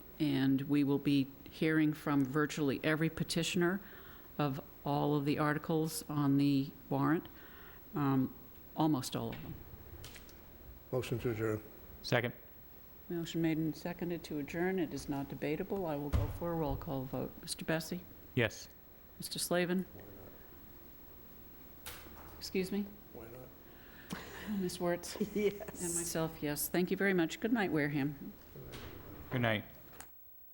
and we will be hearing from virtually every petitioner of all of the articles on the warrant, um, almost all of them. Motion to adjourn. Second. Motion made and seconded to adjourn. It is not debatable. I will go for a roll call vote. Mr. Bessie? Yes. Mr. Slavin? Excuse me? Why not? Ms. Wertz? Yes. And myself, yes. Thank you very much. Good night, Wareham. Good night.